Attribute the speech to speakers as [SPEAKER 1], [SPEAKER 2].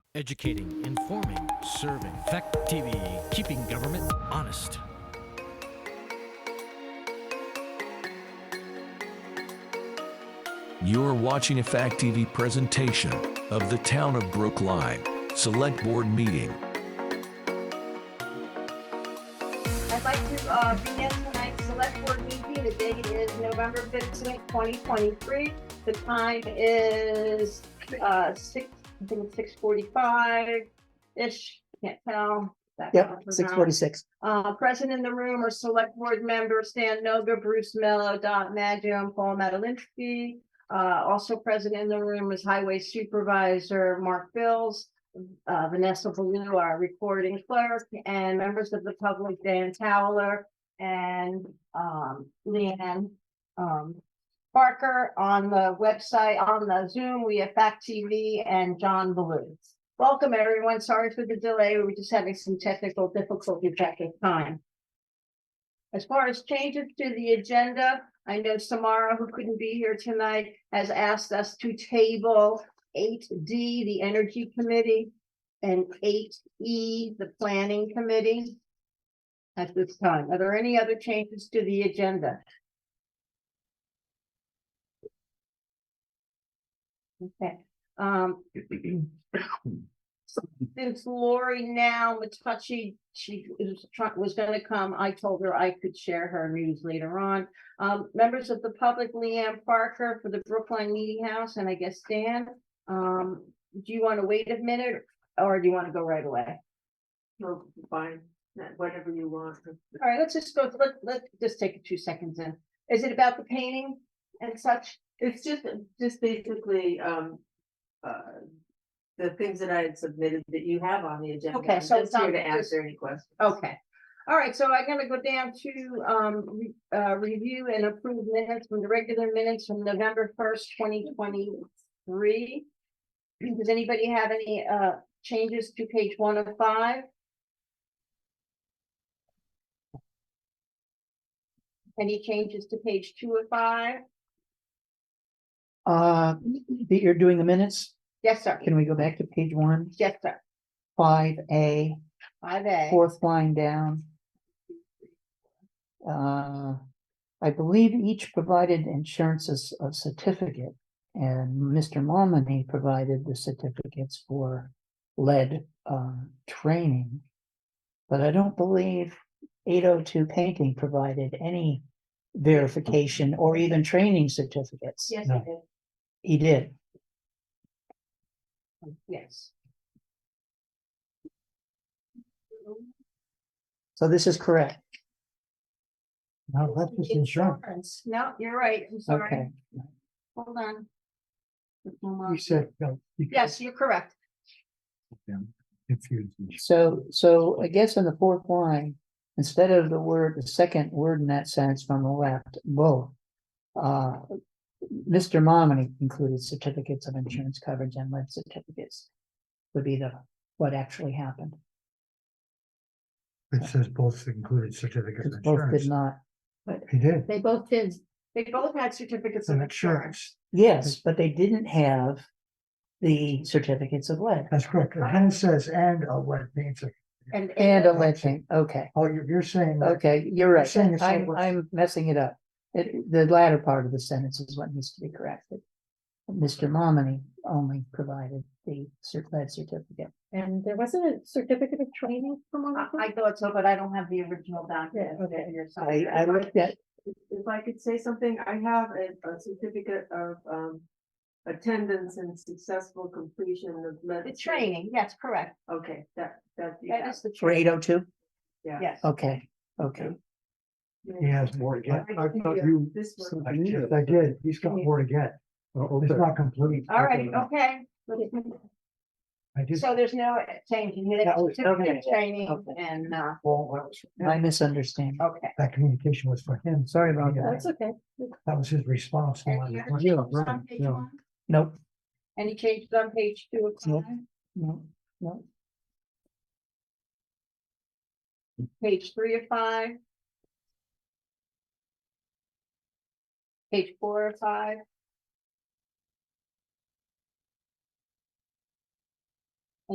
[SPEAKER 1] Educating, informing, serving. Fact TV, keeping government honest.
[SPEAKER 2] You're watching a Fact TV presentation of the Town of Brookline Select Board Meeting.
[SPEAKER 3] I'd like to uh, begin tonight's select board meeting. The date is November fifteenth, twenty twenty-three. The time is uh, six, I think it's six forty-five-ish, can't tell. That
[SPEAKER 4] Yep,
[SPEAKER 3] far from
[SPEAKER 4] six
[SPEAKER 3] now.
[SPEAKER 4] forty-six.
[SPEAKER 3] Uh, present in the room are select board members Stan Noga, Bruce Mello, Dot Maggio, and Paul Madalinsky. Uh, also present in the room is Highway Supervisor Mark Bills, uh, Vanessa Blue, our recording clerk, and members of the public, Dan Towler and, um, Leanne, um, Barker on the website, on the Zoom, we have Fact TV and John Blue. Welcome, everyone. Sorry for the delay. We were just having some technical difficulties at this time. As far as changes to the agenda, I know Samara, who couldn't be here tonight, has asked us to table eight D, the Energy Committee, and eight E, the Planning Committee at this time. Are there any other changes to the agenda? Okay, um. Since Lori now Matucci, she was trying, was gonna come, I told her I could share her news later on. Um, members of the public, Leanne Parker for the Brookline Meeting House, and I guess Dan, um, do you wanna wait a minute? Or do you wanna go right away?
[SPEAKER 5] No, fine, that- whatever you want.
[SPEAKER 3] All right, let's just go, let, let, just take two seconds in. Is it about the painting and such?
[SPEAKER 5] It's just, just basically, um, uh, the things that I had submitted that you have on the agenda.
[SPEAKER 3] Okay,
[SPEAKER 5] I'm
[SPEAKER 3] so it's
[SPEAKER 5] just here
[SPEAKER 3] not
[SPEAKER 5] To
[SPEAKER 3] just-
[SPEAKER 5] answer any questions.
[SPEAKER 3] Okay, all right, so I'm gonna go down to um re- uh review and approve minutes from the regular minutes from November first, twenty twenty-three. Does anybody have any uh changes to page one of five? Any changes to page two of five?
[SPEAKER 4] Uh, that you're doing the minutes.
[SPEAKER 3] Yes, sir.
[SPEAKER 4] Can we go back to page one,
[SPEAKER 3] Yes, sir.
[SPEAKER 4] five A,
[SPEAKER 3] Five A.
[SPEAKER 4] fourth line down? Uh, I believe each provided insurances of certificate. And Mr. Momini provided the certificates for lead, um, training. But I don't believe eight oh two painting provided any verification or even training certificates.
[SPEAKER 3] Yes, I did.
[SPEAKER 4] He did.
[SPEAKER 3] Yes.
[SPEAKER 4] So this is correct. No, Oh, that's just insurance.
[SPEAKER 3] Insurance. No, you're right. I'm uh, sorry.
[SPEAKER 4] Okay,
[SPEAKER 3] Hold on. Hold on.
[SPEAKER 6] You said. no, you-
[SPEAKER 3] Yes, you're correct.
[SPEAKER 6] Confused me.
[SPEAKER 4] so, so I guess in the fourth line, instead of the word, the second word in that sentence from the left, both. Uh, Mr. Momini included certificates of insurance coverage and lead certificates. Would be the, what actually happened,
[SPEAKER 6] It says both included certificate of
[SPEAKER 4] because both did
[SPEAKER 6] insurance.
[SPEAKER 4] not,
[SPEAKER 6] He did,
[SPEAKER 3] They both did. They both had certificates of
[SPEAKER 6] an
[SPEAKER 3] insurance.
[SPEAKER 6] insurance,
[SPEAKER 4] yes, but they didn't have. The certificates of lead
[SPEAKER 6] that's correct, and then it says and uh, a lead painter.
[SPEAKER 3] And,
[SPEAKER 4] and a lead paint, okay.
[SPEAKER 6] Oh, you're, you're saying that,
[SPEAKER 4] Okay, you're right.
[SPEAKER 6] saying it's
[SPEAKER 4] I'm,
[SPEAKER 6] over.
[SPEAKER 4] I'm messing it up. It, the latter part of the sentence is what needs to be corrected. Mr. Momini only provided the cert lead certificate.
[SPEAKER 7] And there wasn't a certificate of training from one
[SPEAKER 3] I
[SPEAKER 7] of them?
[SPEAKER 3] I thought so, but I don't have the original document.
[SPEAKER 7] Yeah, okay.
[SPEAKER 3] Here, so-
[SPEAKER 4] I, I looked at,
[SPEAKER 5] If I could say something, I have a, a certificate of, um, attendance and successful completion of. lead-
[SPEAKER 3] The training, yes, correct.
[SPEAKER 5] Okay, that, that. you
[SPEAKER 3] That
[SPEAKER 5] have,
[SPEAKER 3] is the
[SPEAKER 4] for
[SPEAKER 3] training.
[SPEAKER 4] eight oh two?
[SPEAKER 3] Yes.
[SPEAKER 4] Okay, okay.
[SPEAKER 6] he has more to get, I thought you,
[SPEAKER 5] This one.
[SPEAKER 6] I did, I did, he's got more to get, it's not complete.
[SPEAKER 3] All right, okay.
[SPEAKER 6] I just,
[SPEAKER 3] So there's no change in it.
[SPEAKER 4] That was-
[SPEAKER 3] Certificate
[SPEAKER 4] okay.
[SPEAKER 3] of Training
[SPEAKER 4] Okay.
[SPEAKER 3] and, uh,
[SPEAKER 6] well, that was,
[SPEAKER 4] My misunderstanding.
[SPEAKER 3] okay.
[SPEAKER 6] that communication was for him, sorry about that,
[SPEAKER 7] That's okay.
[SPEAKER 6] that was his response. to my
[SPEAKER 3] Any other changes
[SPEAKER 6] request.
[SPEAKER 3] on page one?
[SPEAKER 4] Nope,
[SPEAKER 3] Any changes on page two of
[SPEAKER 4] Nope.
[SPEAKER 3] five?
[SPEAKER 4] no, no.
[SPEAKER 3] Page three of five? Page four of five?